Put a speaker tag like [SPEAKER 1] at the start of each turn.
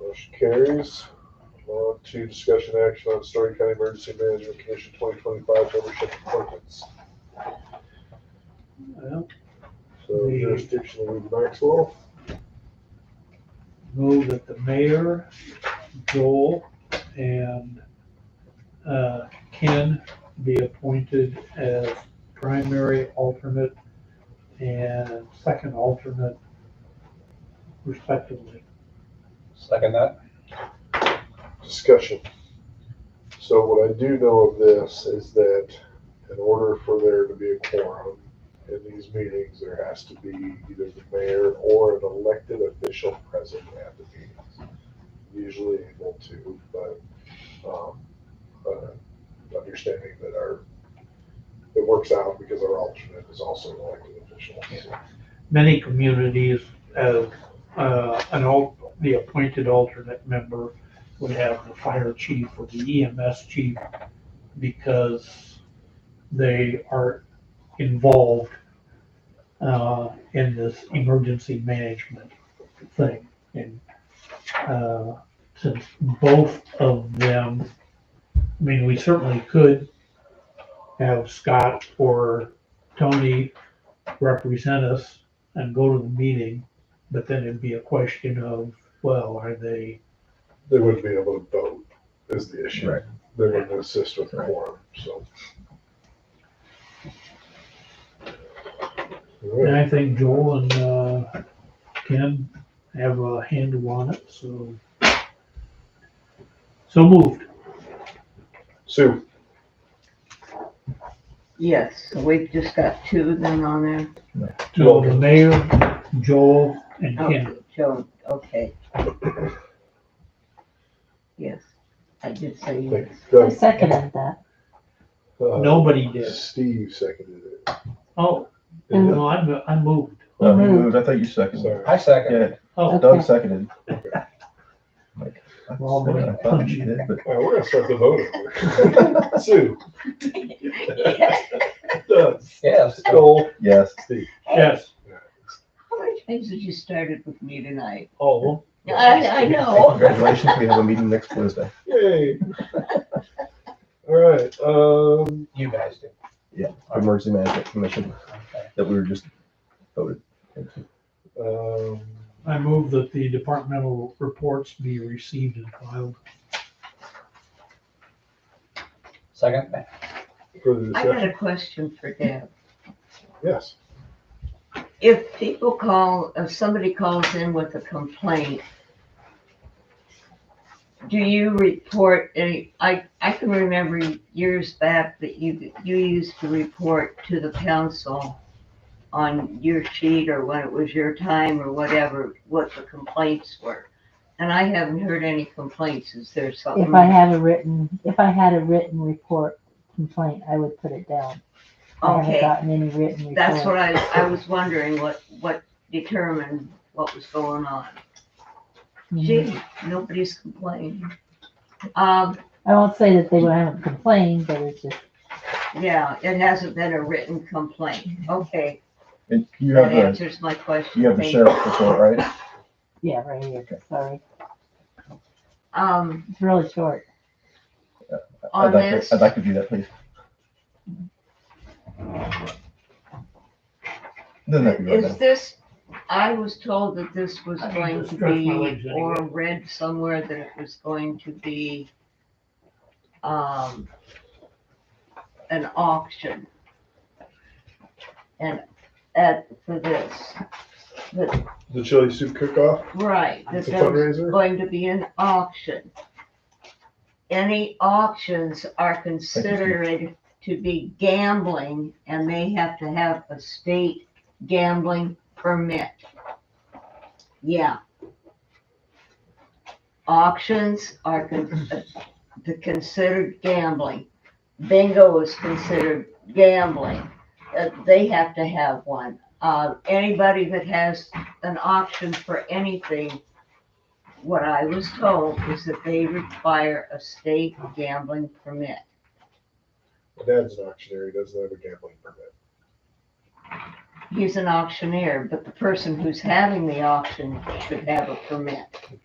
[SPEAKER 1] Motion carries. On to discussion action on Story County Emergency Management Commission twenty twenty-five membership appointments.
[SPEAKER 2] Well,
[SPEAKER 1] So jurisdiction of Maxwell,
[SPEAKER 2] move that the mayor, Joel, and uh, Ken be appointed as primary alternate and second alternate respectively.
[SPEAKER 3] Second that.
[SPEAKER 1] discussion. So what I do know of this is that in order for there to be a quorum in these meetings, there has to be either the mayor or an elected official present at the meetings. Usually able to, but, um, uh, understanding that our, it works out because our alternate is also an elected official. so.
[SPEAKER 2] Many communities, as uh, an al, the appointed alternate member would have the fire chief or the EMS chief because they are involved uh, in this emergency management thing. And uh, since both of them, I mean, we certainly could have Scott or Tony represent us and go to the meeting, but then it'd be a question of, well, are they,
[SPEAKER 1] They wouldn't be able to vote is the issue.
[SPEAKER 3] Right.
[SPEAKER 1] They wouldn't assist with the
[SPEAKER 3] Right.
[SPEAKER 1] quorum, so. All
[SPEAKER 2] and
[SPEAKER 1] right,
[SPEAKER 2] I think Joel and, uh, Ken have a handle on it, so. So moved.
[SPEAKER 1] Sue,
[SPEAKER 4] Yes, so we've just got two then on there.
[SPEAKER 2] So the mayor, Joel, and Ken.
[SPEAKER 4] Oh, Joan, okay. Yes, I did say
[SPEAKER 1] thank
[SPEAKER 4] yes.
[SPEAKER 1] you.
[SPEAKER 5] I seconded that.
[SPEAKER 1] Uh,
[SPEAKER 2] Nobody did.
[SPEAKER 1] Steve seconded it.
[SPEAKER 2] Oh,
[SPEAKER 1] Yeah,
[SPEAKER 2] no, I, mo- I moved.
[SPEAKER 6] No, he
[SPEAKER 4] Mm-hmm.
[SPEAKER 5] Mhm.
[SPEAKER 6] moved. I thought you seconded.
[SPEAKER 1] Sorry.
[SPEAKER 3] I second.
[SPEAKER 6] Yeah,
[SPEAKER 2] Oh,
[SPEAKER 6] Doug seconded. Like, I
[SPEAKER 2] Well,
[SPEAKER 6] said I thought you did, but
[SPEAKER 1] All right, we're gonna start the voting. here. Sue, Doug,
[SPEAKER 3] Yes.
[SPEAKER 1] Joel,
[SPEAKER 6] yes,
[SPEAKER 1] Steve.
[SPEAKER 2] yes.
[SPEAKER 4] How many times have you started with me tonight?
[SPEAKER 2] Oh,
[SPEAKER 4] I, I know.
[SPEAKER 6] congratulations. We have a meeting next Wednesday.
[SPEAKER 1] Yay. All right, um,
[SPEAKER 3] You guys do.
[SPEAKER 6] Yeah, Emergency Management Commission that we were just voted. into.
[SPEAKER 1] um,
[SPEAKER 2] I move that the departmental reports be received and filed.
[SPEAKER 3] Second that.
[SPEAKER 1] further
[SPEAKER 4] I got
[SPEAKER 1] discussion,
[SPEAKER 4] a question for Deb.
[SPEAKER 1] yes.
[SPEAKER 4] If people call, if somebody calls in with a complaint, do you report any, I, I can remember years back that you, you used to report to the council on your sheet or when it was your time or whatever, what the complaints were. And I haven't heard any complaints. Is there something?
[SPEAKER 5] If I had a written, if I had a written report complaint, I would put it down. I haven't
[SPEAKER 4] Okay,
[SPEAKER 5] gotten any written report.
[SPEAKER 4] that's what I, I was wondering what, what determined what was going on.
[SPEAKER 5] Mhm.
[SPEAKER 4] Gee, nobody's complaining. Um,
[SPEAKER 5] I won't say that they haven't complained, but it's just,
[SPEAKER 4] yeah, it hasn't been a written complaint. Okay,
[SPEAKER 6] And you
[SPEAKER 4] that
[SPEAKER 6] have the,
[SPEAKER 4] answers my question.
[SPEAKER 6] you have the
[SPEAKER 4] Thank-
[SPEAKER 6] sheriff's report, right?
[SPEAKER 5] yeah, right here, sorry.
[SPEAKER 4] Um,
[SPEAKER 5] It's really short.
[SPEAKER 4] on
[SPEAKER 6] I'd like,
[SPEAKER 4] this,
[SPEAKER 6] to- I'd like to do that, please. Doesn't have to be right
[SPEAKER 4] Mm-hmm. is
[SPEAKER 6] now.
[SPEAKER 4] this, I was told that this was
[SPEAKER 2] I need to
[SPEAKER 4] going to
[SPEAKER 2] stretch my legs
[SPEAKER 4] be,
[SPEAKER 2] anyway.
[SPEAKER 4] or read somewhere that it was going to be, um, an auction. And at, for this, that,
[SPEAKER 1] The chili soup cook-off,
[SPEAKER 4] right, that
[SPEAKER 1] it's a
[SPEAKER 4] there was
[SPEAKER 1] fundraiser,
[SPEAKER 4] going to be an auction. Any auctions are considered to be gambling and they have to have a state gambling permit. Yeah. Auctions are con- uh, the considered gambling. Bingo is considered gambling. Uh, They have to have one. Uh, Anybody that has an auction for anything what I was told is that they require a state gambling permit.
[SPEAKER 1] Dad's an auctioneer, he doesn't have a gambling permit.
[SPEAKER 4] He's an auctioneer, but the person who's having the auction should have a permit.